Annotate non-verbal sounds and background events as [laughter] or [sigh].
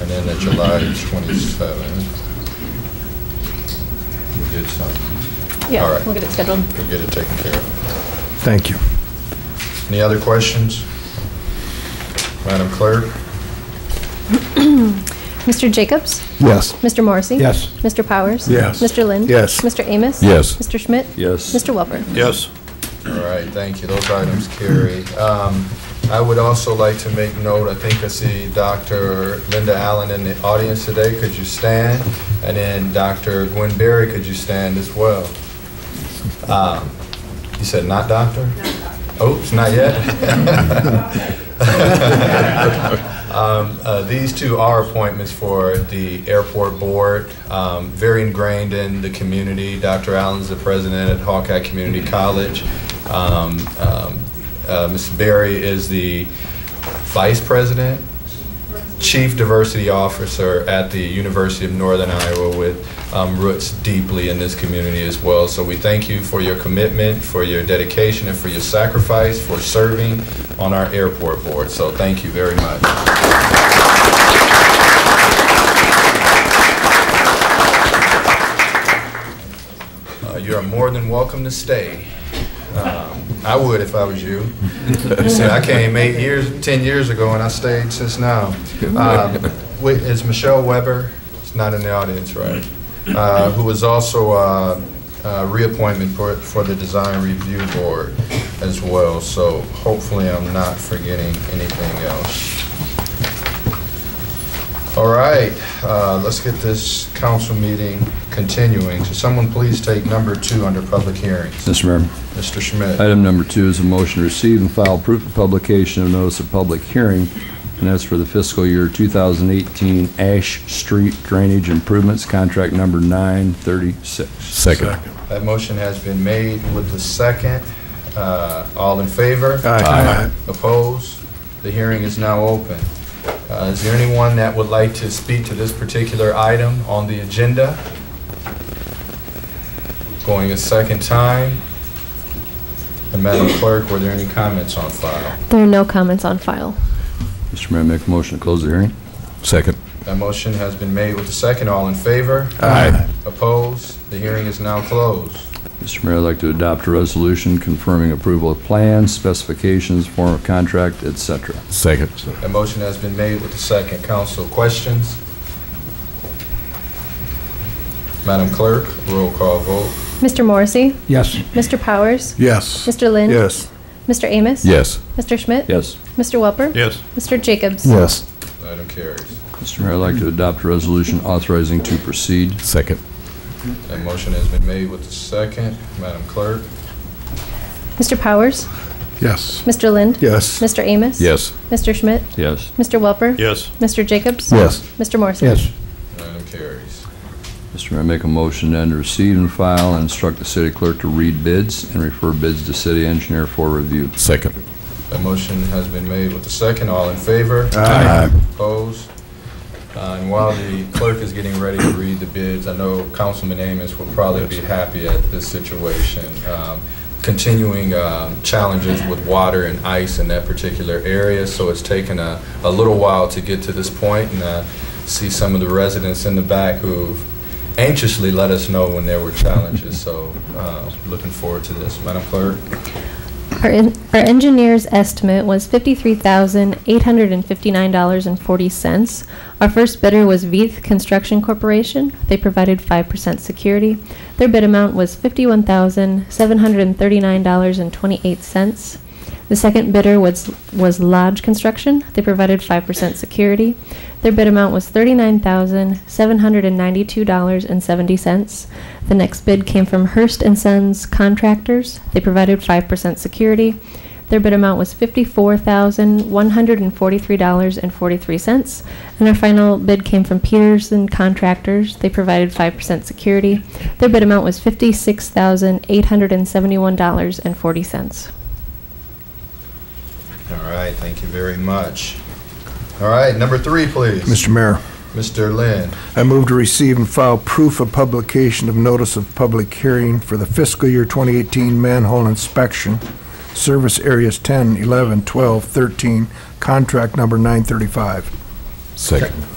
And then at July 27th, we did something. All Yeah, right. we'll get it scheduled. We'll get it taken care of. Thank you. Any other questions? Madam Clerk? Mr. Jacobs? Yes. Mr. Morrissey? Yes. Mr. Powers? Yes. Mr. Lynn? Yes. Mr. Amos? Yes. Mr. Schmidt? Yes. Mr. Welper? Yes. All right, thank you. Those items carry. Um, I would also like to make note, I think I see Dr. Linda Allen in the audience today. Could you stand? And then Dr. Gwen Berry, could you stand as well? Um, You said not doctor? Oops, not [laughs] yet? Um, uh, These two are appointments for the airport board, um, very ingrained in the community. Dr. Allen's the president at Hawkeye Community College. Um, um, uh, Ms. Berry is the vice president, chief diversity officer at the University of Northern Iowa with um, roots deeply in this community as well. So we thank you for your commitment, for your dedication, and for your sacrifice for serving on our airport board. So thank you very much. Uh, You are more than welcome to stay. Um, I would if I was you. You said, I came eight years, 10 years ago, and I stayed since now. Um, wait, Is Michelle Weber, she's not in the audience, right? Uh, Who is also uh, uh, reappointment for for the Design Review Board as well. So hopefully I'm not forgetting anything else. All right, uh, let's get this council meeting continuing. So someone please take number two under public hearings. Mr. Mayor, Mr. Schmidt. item number two is a motion to receive and file proof of publication of notice of public hearing, and that's for the fiscal year 2018 Ash Street Drainage Improvements, contract number 936. Second. That motion has been made with the second. Uh, All in favor? Aye. Opposed? The hearing is now open. Uh, Is there anyone that would like to speak to this particular item on the agenda? Going a second time. And Madam Clerk, were there any comments on file? There are no comments on file. Mr. Mayor, make a motion to close the hearing. Second. That motion has been made with the second. All in favor? Aye. Opposed? The hearing is now closed. Mr. Mayor, I'd like to adopt a resolution confirming approval of plans, specifications, form of contract, et cetera. Second. A motion has been made with the second. Council questions? Madam Clerk, roll call vote. Mr. Morrissey? Yes. Mr. Powers? Yes. Mr. Lynn? Yes. Mr. Amos? Yes. Mr. Schmidt? Yes. Mr. Welper? Yes. Mr. Jacobs? Yes. Item carries. Mr. Mayor, I'd like to adopt a resolution authorizing to proceed. Second. That motion has been made with the second. Madam Clerk? Mr. Powers? Yes. Mr. Lynn? Yes. Mr. Amos? Yes. Mr. Schmidt? Yes. Mr. Welper? Yes. Mr. Jacobs? Yes. Mr. Morrissey? Item carries. Mr. Mayor, make a motion then to receive and file and instruct the city clerk to read bids and refer bids to city engineer for review. Second. That motion has been made with the second. All in favor? Aye. Opposed? Uh, And while the clerk is getting ready to read the bids, I know Councilman Amos will probably be happy at this situation. Um, Continuing um, challenges with water and ice in that particular area, so it's taken a, a little while to get to this point, and I see some of the residents in the back who've anxiously let us know when there were challenges, so uh, looking forward to this. Madam Clerk? Our, en- our engineer's estimate was fifty-three thousand eight hundred and fifty-nine dollars and forty cents. Our first bidder was Veith Construction Corporation. They provided five percent security. Their bid amount was fifty-one thousand seven hundred and thirty-nine dollars and twenty-eight cents. The second bidder was was Lodge Construction. They provided five percent security. Their bid amount was thirty-nine thousand seven hundred and ninety-two dollars and seventy cents. The next bid came from Hearst and Sons Contractors. They provided five percent security. Their bid amount was fifty-four thousand one hundred and forty-three dollars and forty-three cents. And our final bid came from Peterson Contractors. They provided five percent security. Their bid amount was fifty-six thousand eight hundred and seventy-one dollars and forty cents. All right, thank you very much. All right, number three, please. Mr. Mayor, Mr. Lynn? I move to receive and file proof of publication of notice of public hearing for the fiscal year 2018 manhole inspection, service areas 10, 11, 12, 13, contract number 935. Second.